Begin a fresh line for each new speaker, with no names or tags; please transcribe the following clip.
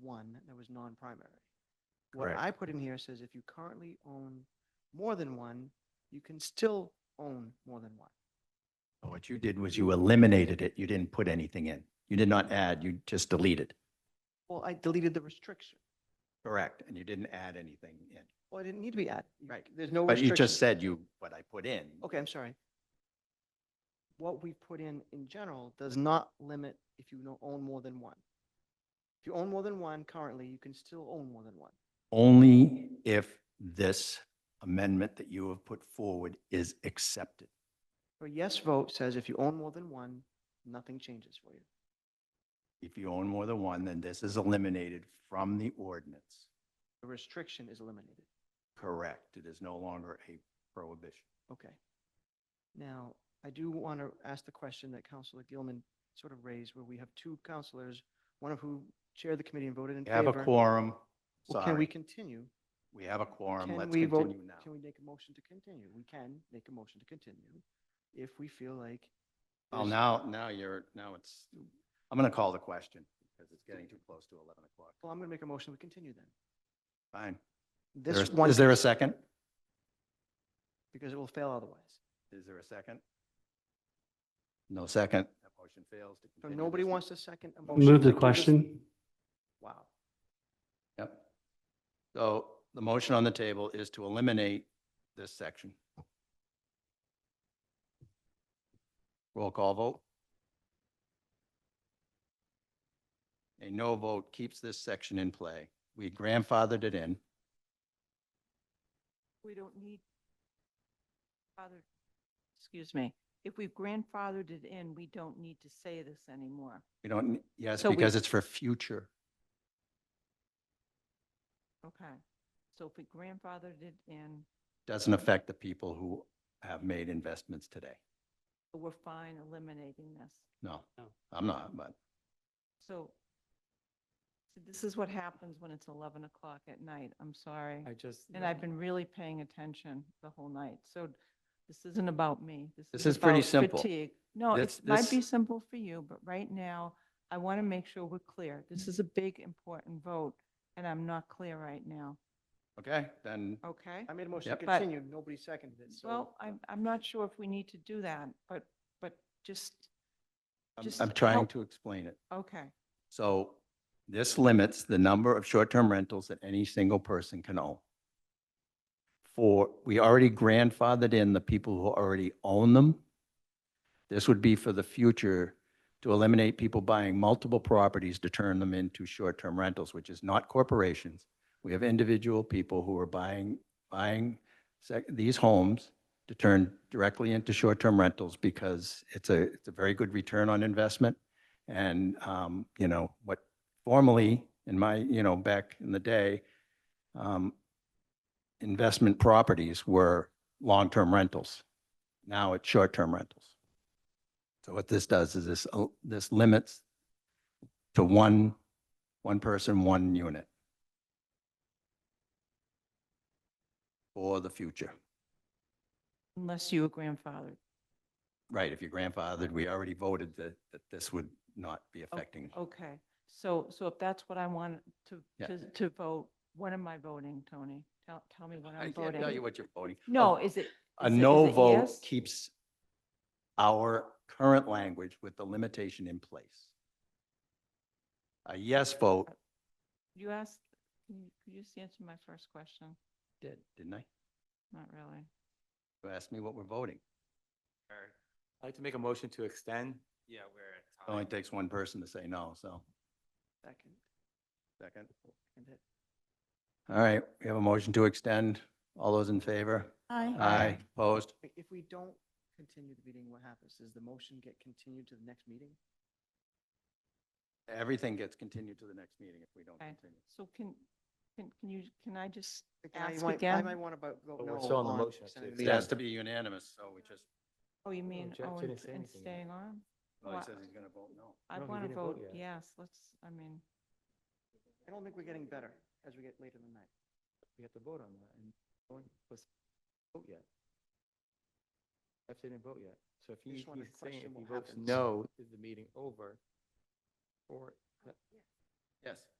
one that was non-primary. What
Correct.
I put in here says if you currently own more than one, you can still own more than one.
What you did was you eliminated it. You didn't put anything in. You did not add, you just deleted.
Well, I deleted the restriction.
Correct. And you didn't add anything in.
Well, it didn't need to be added. You- There's no
But
restriction.
you just said you, what I put in.
Okay, I'm sorry. What we put in in general does not limit if you no- own more than one. If you own more than one currently, you can still own more than one.
Only if this amendment that you have put forward is accepted.
A yes vote says if you own more than one, nothing changes for you.
If you own more than one, then this is eliminated from the ordinance.
The restriction is eliminated.
Correct. It is no longer a prohibition.
Okay. Now, I do want to ask the question that Counselor Gilman sort of raised, where we have two counselors, one of who chaired the committee and voted in
We have
favor.
a quorum.
Well, Can we
Sorry.
continue?
We have a quorum.
Can
Let's
we vote-
continue
Can
now.
we make a motion to continue? We can make a motion to continue if we feel like.
Well,
there's-
now, now you're, now it's, I'm going to call the question because it's getting too close to 11 o'clock.
Well, I'm going to make a motion, we continue then.
Fine. There
This
is-
one,
Is there a second?
because it will fail otherwise.
Is there a second? No second. That motion fails. to
So
continue
nobody
this-
wants to second a motion.
Move
to
the
do this?
question.
Wow.
Yep. So the motion on the table is to eliminate this section. Roll call vote. A no vote keeps this section in play. We grandfathered it in.
we don't need father, excuse me, if we've grandfathered it in, we don't need to say this anymore.
We don't, yes,
So we-
because it's for future.
Okay. So if we grandfathered it in,
Doesn't affect the people who have made investments today.
we're fine eliminating this.
No,
Oh.
No.
I'm not, but
So so this is what happens when it's 11 o'clock at night. I'm sorry.
I just.
And I've been really paying attention the whole night. So this isn't about me.
This is pretty
about
simple.
fatigue. No, it
This-
might
this-
be simple for you, but right now, I want to make sure we're clear. This is a big, important vote, and I'm not clear right now,
okay, then
okay?
I made a motion
Yep.
to
But-
continue, nobody seconded it, so.
Well, I'm, I'm not sure if we need to do that, but, but just,
I'm-
Just
I'm trying
help-
to explain it.
okay,
So this limits the number of short-term rentals that any single person can own. For, we already grandfathered in the people who already own them. This would be for the future to eliminate people buying multiple properties to turn them into short-term rentals, which is not corporations. We have individual people who are buying, buying sec- these homes to turn directly into short-term rentals because it's a, it's a very good return on investment. And, um, you know, what formerly in my, you know, back in the day, um, investment properties were long-term rentals. Now it's short-term rentals. So what this does is this, uh, this limits to one, one person, one unit for the future.
unless you were grandfathered.
Right, if your grandfathered, we already voted that, that this would not be
O-
affecting.
Okay, so, so if that's what I want to,
Yeah.
to, to vote, what am I voting, Tony? Tell, tell me what
I
I'm
can't
voting.
tell you what you're voting. Oh,
No, is it?
A
is it-
no
is it
vote
yes?
keeps our current language with the limitation in place. A yes vote,
You asked, can you, could you just answer my first question?
did, didn't I?
Not really.
You asked me what we're voting.
I'd like to make a motion to extend. Yeah,
It only takes one person to say no, so.
Second,
Second.
and it-
All right, we have a motion to extend. All those in favor? Aye, opposed?
i- If we don't continue the meeting, what happens? Does the motion get continued to the next meeting?
Everything gets continued to the next meeting if we don't
Okay.
continue.
So can, can, can you, can I just
Like, I
ask
might- I
again?
might want to vote vote
But
no.
we're still on the
on
motion,
extending
so
the
It
Yeah.
has
meeting.
to be unanimous, so we just,
Oh, you mean,
Jeff
oh, and
didn't
s-
say
and
anything yet.
staying on?
oh, he
Well,
says he's going to vote no.
I
No, he
want to
didn't vote
vote
yet.
yes, let's, I mean,
I don't think we're getting better as we get later in the night.
We have to vote on that and no one was vote yet. Jeff didn't vote yet. So if
I just
he,
wanted
he's
to
saying
question
if he
what
votes
happens.
no, is the meeting over? Or,
Yes.